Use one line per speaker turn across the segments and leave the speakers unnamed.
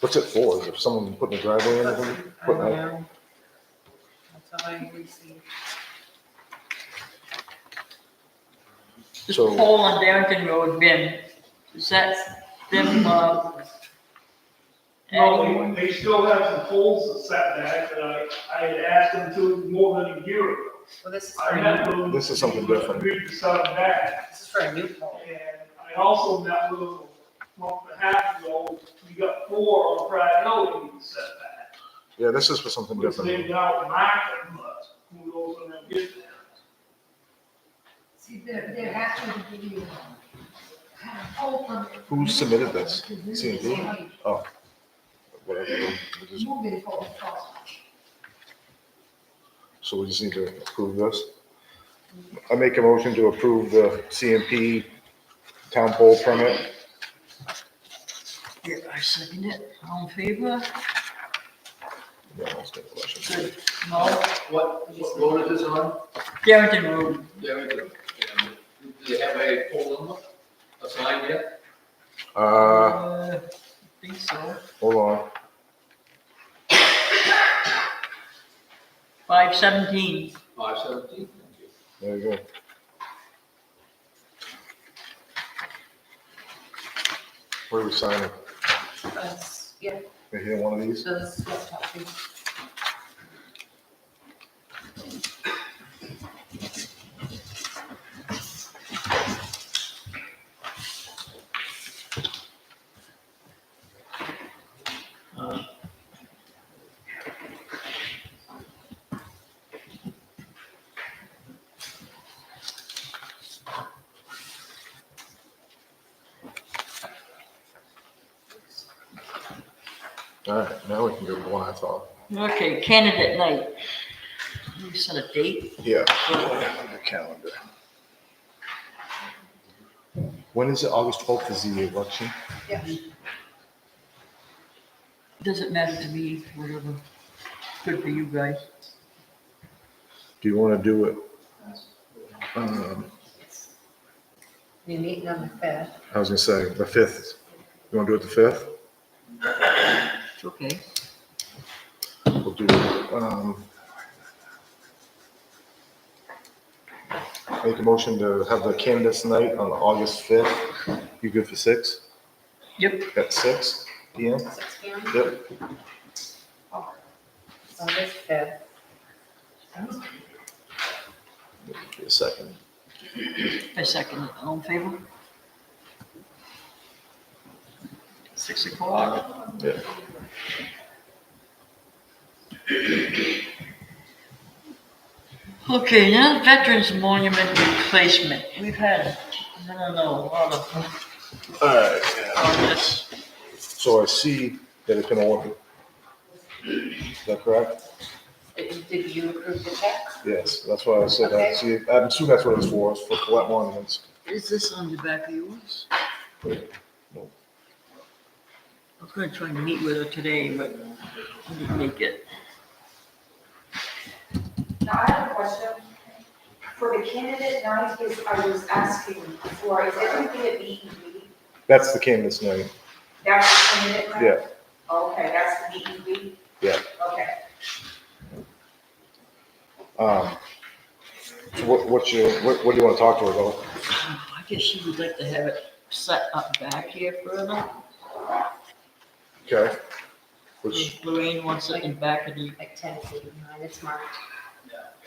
What's it for? Is it someone putting a driveway in or something?
I
Putting
don't
a-
know. That's all I received.
This
So-
pole on Darrington Road, Ben, is that them, uh? adding-
No, they still have some poles set back, that I, I had asked them to more than a year ago.
Well, this is for
I
a
met
new,
with them.
This is something different.
Agreed to set them back,
this is for a new pole.
and I also met with them a month and a half ago, we got four on Pride Hill that we set back.
Yeah, this is for something
Which
different.
they got marked, but who knows when they'll get there.
See, they're, they're happy to give you kind of hope on it.
Who submitted this? C&D?
Moving
Oh. Whatever. we just-
forward, forward.
So we just need to approve this. I make a motion to approve the CMP town pole permit.
Yeah, I second it, all in favor?
Yeah, I'll take the motion.
Good. No,
What, what road is this on?
Darrington Road,
There we go. And Do you have a pole number, a sign yet?
Uh,
uh, I think so,
hold on.
five seventeen.
Five seventeen, thank you.
There you go. Where are we signing?
That's, yeah,
Right here, one of these?
so this is what's happening.
All right, now we can go to the one I thought.
Okay, candidate night. Can We set a date,
Yeah. The calendar. When is it? August twelfth is the election?
doesn't matter to me, whatever, good for you guys.
Do you want to do it? um,
We meet on the fifth.
I was gonna say, the fifth. You want to do it the fifth?
It's okay.
We'll do, um, make a motion to have the candidates night on August fifth. You good for six?
Yep,
At six P M?
Six P M,
Yep.
August fifth.
Give me A second.
I second it, all in favor? Six o'clock,
Yeah.
okay, now Veterans Monument replacement, we've had, I don't know, a lot of,
All right.
on this.
So I see that it's been ordered. Is that correct?
Did did you approve the check?
Yes, that's why I said, I
Okay.
see, I'm assuming that's what it's for, it's for flat monuments.
Is this on the back of yours?
No.
I was gonna try and meet with her today, but I didn't make it.
Now, I have a question. For the candidate night, is, I was asking for, is everything at meet and greet?
That's the canvas name,
That's the candidate night?
yeah.
Okay, that's the meet and greet?
Yeah.
Okay.
Um, So what, what's your, what, what do you want to talk to her about?
I guess she would like to have it set up back here further.
Okay. Which,
Lorraine wants it in back of the,
Like ten feet behind, it's marked.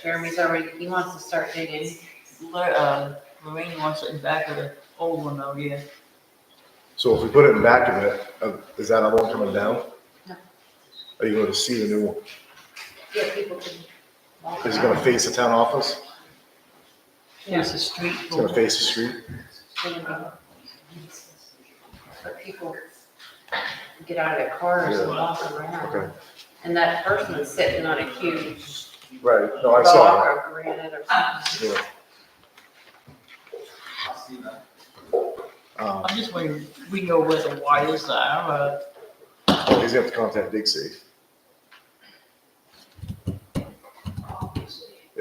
Jeremy's already, he wants to start digging.
Lor- uh, Lorraine wants it in back of the old one out here.
so if we put it in back of it, uh, is that other one coming down?
No.
Are you going to see the new one?
Yeah, people can. walk
Is it going to
around.
face the town office?
There's a street.
It's going to face the street?
But people get out of their cars and
Yeah.
walk around.
Okay.
And that person's sitting on a huge
Right, no, I
rock
saw
or granite or something.
it. Yeah.
I'll see that.
Um,
I'm just wondering, we know where the wires are, uh,
He's going to have to contact Dig Safe.